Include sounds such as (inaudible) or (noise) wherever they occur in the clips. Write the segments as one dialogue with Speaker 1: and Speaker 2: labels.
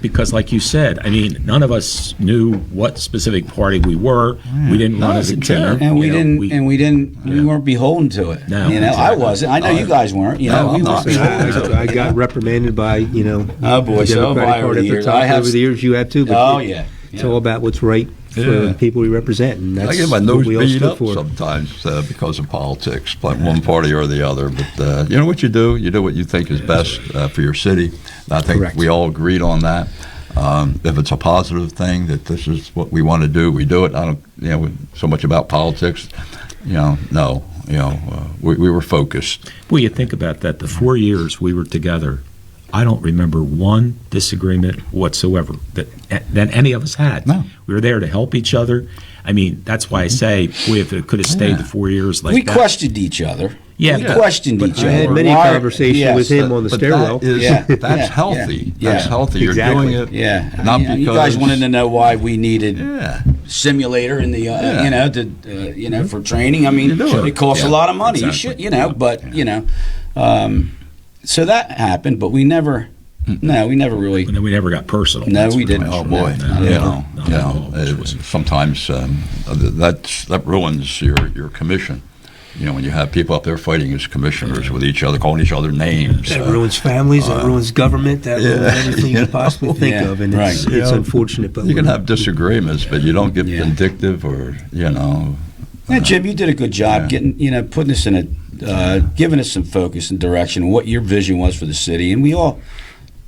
Speaker 1: because, like you said, I mean, none of us knew what specific party we were. We didn't run as a
Speaker 2: terror.
Speaker 1: terror,
Speaker 3: And we
Speaker 1: you know,
Speaker 3: didn't,
Speaker 1: we-
Speaker 3: and we didn't, we weren't beholden to it.
Speaker 1: No,
Speaker 3: you know, I
Speaker 1: exactly. Uh,
Speaker 3: wasn't. I know you guys weren't. You know,
Speaker 2: No,
Speaker 3: we
Speaker 2: I'm not.
Speaker 3: weren't beholden to it.
Speaker 4: I, I got reprimanded by, you know,
Speaker 3: Oh, boy,
Speaker 4: the
Speaker 3: so have
Speaker 4: Democratic
Speaker 3: I over
Speaker 4: Party
Speaker 3: the
Speaker 4: at the
Speaker 3: years.
Speaker 4: top.
Speaker 3: I have
Speaker 4: Over the years, you have too. but
Speaker 3: Oh,
Speaker 4: it-
Speaker 3: yeah.
Speaker 4: It's
Speaker 3: Yeah.
Speaker 4: all about what's right for
Speaker 2: Yeah.
Speaker 4: the people we represent, and that's
Speaker 2: I get my
Speaker 4: what
Speaker 2: nose
Speaker 4: we all
Speaker 2: beat
Speaker 4: stood
Speaker 2: up
Speaker 4: for.
Speaker 2: sometimes uh, because of politics, like one party or the other. But uh, you know what you do? You do what you think is best uh, for your city. And I think
Speaker 4: Correct.
Speaker 2: we all agreed on that. Um, if it's a positive thing that this is what we want to do, we do it. I don't, you know, so much about politics. You know, no, you know, uh, we, we were focused.
Speaker 1: Well, you think about that. The four years we were together, I don't remember one disagreement whatsoever that that any of us had.
Speaker 2: No.
Speaker 1: We were there to help each other. I mean, that's why I say, boy, if it could have stayed the four years (laughs) like
Speaker 3: Mm-hmm. we
Speaker 1: that.
Speaker 3: questioned each other.
Speaker 1: Yeah,
Speaker 3: we
Speaker 1: but-
Speaker 3: questioned
Speaker 1: but
Speaker 3: each
Speaker 4: I
Speaker 3: other.
Speaker 4: had many
Speaker 3: Why-
Speaker 4: conversations
Speaker 3: yes.
Speaker 4: with him on the
Speaker 2: But
Speaker 4: stairwell.
Speaker 2: That is,
Speaker 3: Yeah, yeah,
Speaker 2: That's
Speaker 3: yeah,
Speaker 2: healthy.
Speaker 3: yeah.
Speaker 2: That's healthy. You're
Speaker 4: Exactly.
Speaker 2: doing it.
Speaker 3: Yeah, I
Speaker 2: Not
Speaker 3: mean,
Speaker 2: because
Speaker 3: you guys wanted to know why we needed
Speaker 2: Yeah.
Speaker 3: simulator in the uh,
Speaker 2: Yeah.
Speaker 3: you know to uh, you know for training. I mean,
Speaker 2: You do it.
Speaker 3: it costs
Speaker 2: Yeah.
Speaker 3: a lot of money. You
Speaker 1: Exactly.
Speaker 3: should you know, but you know, um, so that happened. But we never, no, we never really.
Speaker 1: And then we never got personal.
Speaker 3: No,
Speaker 1: That's
Speaker 3: we
Speaker 1: pretty
Speaker 3: didn't.
Speaker 1: much what
Speaker 2: Oh boy,
Speaker 1: happened.
Speaker 2: you
Speaker 3: No, no,
Speaker 2: know,
Speaker 1: no,
Speaker 2: you
Speaker 1: no,
Speaker 2: know,
Speaker 1: no, which
Speaker 2: it-
Speaker 1: was-
Speaker 2: sometimes um, that's that ruins your your commission. You know, when you have people up there fighting as commissioners with each other, calling each other names.
Speaker 4: That
Speaker 2: uh,
Speaker 4: ruins families. That ruins government. That ruins everything you,
Speaker 2: you know.
Speaker 4: possibly think
Speaker 3: (laughs) Yeah,
Speaker 4: of, and it's,
Speaker 3: right.
Speaker 4: it's
Speaker 2: Yeah.
Speaker 4: unfortunate. But
Speaker 2: you can
Speaker 4: we're-
Speaker 2: have disagreements, but you don't get
Speaker 3: Yeah.
Speaker 2: vindictive or you know.
Speaker 3: Yeah, Jim, you did a good job
Speaker 2: Yeah.
Speaker 3: getting you know putting us in a uh, giving us some focus and direction and what your vision was for the city, and we all,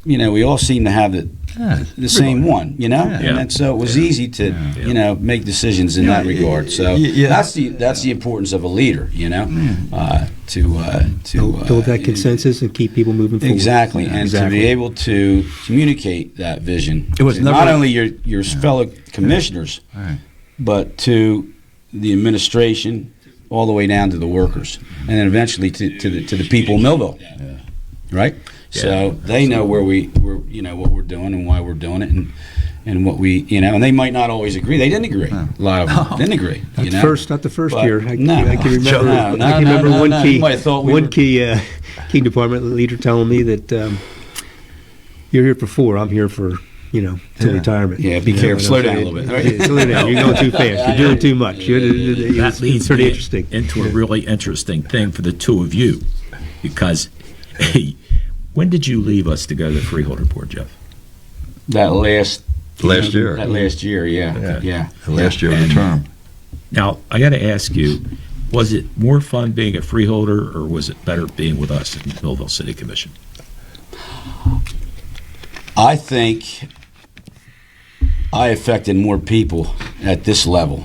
Speaker 3: you know, we all seem to have the
Speaker 2: Yeah,
Speaker 3: the same one, you know,
Speaker 2: Yeah.
Speaker 3: and that, so it was easy to you know make decisions in
Speaker 2: Yeah,
Speaker 3: that regard. So
Speaker 2: y- yeah.
Speaker 3: that's the that's the importance of a leader, you know, uh, to uh, to
Speaker 4: build,
Speaker 3: uh,
Speaker 4: build that consensus and keep people moving forward.
Speaker 3: Exactly, and
Speaker 4: exactly.
Speaker 3: to be able to communicate that vision.
Speaker 2: It was
Speaker 3: to
Speaker 2: never-
Speaker 3: not only your your fellow commissioners,
Speaker 2: Right.
Speaker 3: but to the administration, all the way down to the workers, and then eventually to, to the to the people of Millville. Right. so they know where we where you know what we're doing and why we're doing it, and and what we you know, and they might not always agree. They didn't agree. A lot
Speaker 2: (laughs)
Speaker 3: of them didn't agree.
Speaker 4: Not
Speaker 3: You
Speaker 4: the
Speaker 3: know?
Speaker 4: first, not the first
Speaker 3: But
Speaker 4: year. I,
Speaker 3: no.
Speaker 4: I
Speaker 3: (laughs)
Speaker 4: can remember.
Speaker 3: No, no,
Speaker 4: I can
Speaker 3: no,
Speaker 4: remember
Speaker 3: no,
Speaker 4: one
Speaker 3: no. You
Speaker 4: key,
Speaker 3: might have thought we
Speaker 4: one
Speaker 3: were-
Speaker 4: key, uh, key department leader telling me that um, you're here for four. I'm here for you know till retirement.
Speaker 3: Yeah, be
Speaker 4: You know,
Speaker 3: careful.
Speaker 4: and
Speaker 3: Slow
Speaker 4: I'm
Speaker 3: down a
Speaker 4: saying,
Speaker 3: little bit, right?
Speaker 4: (laughs) yeah, slow down. You're going too fast. You're doing too much.
Speaker 3: (laughs)
Speaker 4: You're, it was
Speaker 1: that leads
Speaker 4: pretty
Speaker 1: me
Speaker 4: interesting.
Speaker 1: into a really interesting thing for the two of you, because when did you leave us to go to the freeholder board, Jeff?
Speaker 3: That last
Speaker 2: Last year.
Speaker 3: That last year, yeah,
Speaker 2: Yeah.
Speaker 3: yeah.
Speaker 2: The last year of the term.
Speaker 1: Now I got to ask you, was it more fun being a freeholder, or was it better being with us in Millville City Commission?
Speaker 3: I think I affected more people at this level.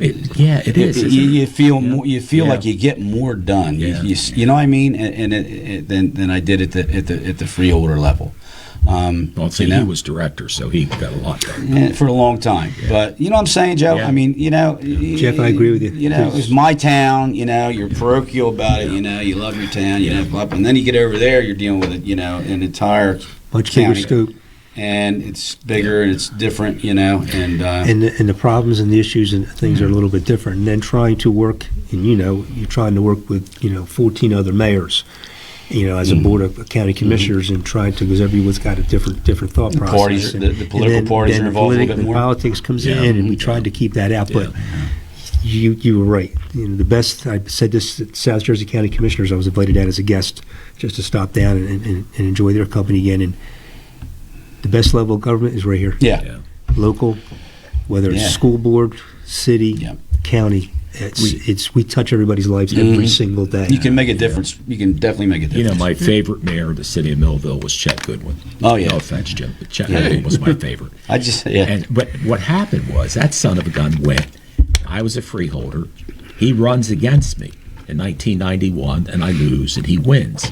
Speaker 1: It, yeah, it
Speaker 3: You-
Speaker 1: is.
Speaker 3: you,
Speaker 1: isn't it?
Speaker 3: you feel
Speaker 1: Yeah.
Speaker 3: more, you feel
Speaker 1: Yeah.
Speaker 3: like you get more done. You-
Speaker 1: Yeah.
Speaker 3: You, s- you know what I mean? And, and it, it, than than I did at the at the at the freeholder level. Um,
Speaker 1: Well, see,
Speaker 3: you know?
Speaker 1: he was director, so he got a lot done.
Speaker 3: Yeah, for a long time. But you know what I'm saying, Joe?
Speaker 1: Yeah.
Speaker 3: I mean, you know, y-
Speaker 4: Jeff, I agree with you.
Speaker 3: You know, it was my town. You know, you're parochial about it. You know, you love your town. You know, blah, blah. and then you get over there, you're dealing with it. You know, an entire
Speaker 4: Much bigger
Speaker 3: county.
Speaker 4: scope.
Speaker 3: and it's bigger and it's different. You know, and, uh,
Speaker 4: and the, and the problems and the issues and things are
Speaker 3: Mm-hmm.
Speaker 4: a little bit different. And then trying to work, and you know, you're trying to work with you know 14 other mayors, you know,
Speaker 3: Mm-hmm.
Speaker 4: as a board of county commissioners, and trying to because everyone's got a different different thought
Speaker 3: The
Speaker 4: process.
Speaker 3: parties-
Speaker 4: and,
Speaker 3: the- the political parties are
Speaker 4: the
Speaker 3: involved a little
Speaker 4: politi-
Speaker 3: bit more.
Speaker 4: The politics comes
Speaker 1: Yeah.
Speaker 4: in, and we tried to keep that out, but. You, you were right. You know, the best, I said this at South Jersey County Commissioners, I was invited out as a guest just to stop down and, and, and enjoy their company again. And the best level of government is right here
Speaker 3: yeah.
Speaker 1: Yeah.
Speaker 4: local, whether it's
Speaker 3: Yeah.
Speaker 4: school board, city,
Speaker 3: Yeah.
Speaker 4: county. It's
Speaker 1: We-
Speaker 4: it's we touch everybody's lives every
Speaker 3: Mhm.
Speaker 4: single day.
Speaker 3: You can make a difference. You can definitely make a
Speaker 1: You
Speaker 3: difference.
Speaker 1: know, my favorite mayor of the city of Millville was Chet Goodwin.
Speaker 3: Oh, yeah.
Speaker 1: No offense, Jim, but Chet
Speaker 3: Yeah.
Speaker 1: Goodwin was my favorite.
Speaker 3: I just yeah.
Speaker 1: And but what happened was that son of a gun went. I was a freeholder. He runs against me in 1991, and I lose, and he wins.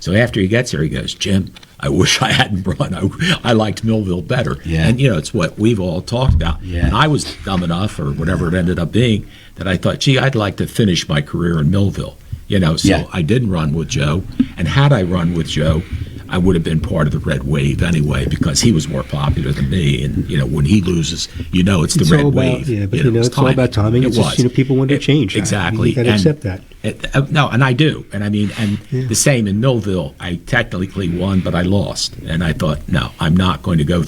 Speaker 1: So after he gets here, he goes, Jim. I wish I hadn't run. I, I liked Millville better.
Speaker 3: Yeah.
Speaker 1: And, you know, it's what we've all talked about.
Speaker 3: Yeah.
Speaker 1: And I was dumb enough, or whatever it ended up being, that I thought, gee, I'd like to finish my career in Millville. You know, so
Speaker 3: Yeah.
Speaker 1: I didn't run with Joe. And had I run with Joe, I I would have been part of the red wave anyway because he was more popular than me. And you know, when he loses, you know it's the
Speaker 4: It's
Speaker 1: red
Speaker 4: all about-
Speaker 1: wave.
Speaker 4: yeah, but you know,
Speaker 1: it's
Speaker 4: it's all about timing.
Speaker 1: It
Speaker 4: It's just,
Speaker 1: was.
Speaker 4: you know, people want to
Speaker 1: It-
Speaker 4: change. I-
Speaker 1: Exactly.
Speaker 4: you gotta
Speaker 1: And-
Speaker 4: accept that.
Speaker 1: it- uh, no, and I do, and I mean, and
Speaker 4: Yeah.
Speaker 1: the same in Millville. I technically won, but I lost, and I thought, no, I'm not going to go through.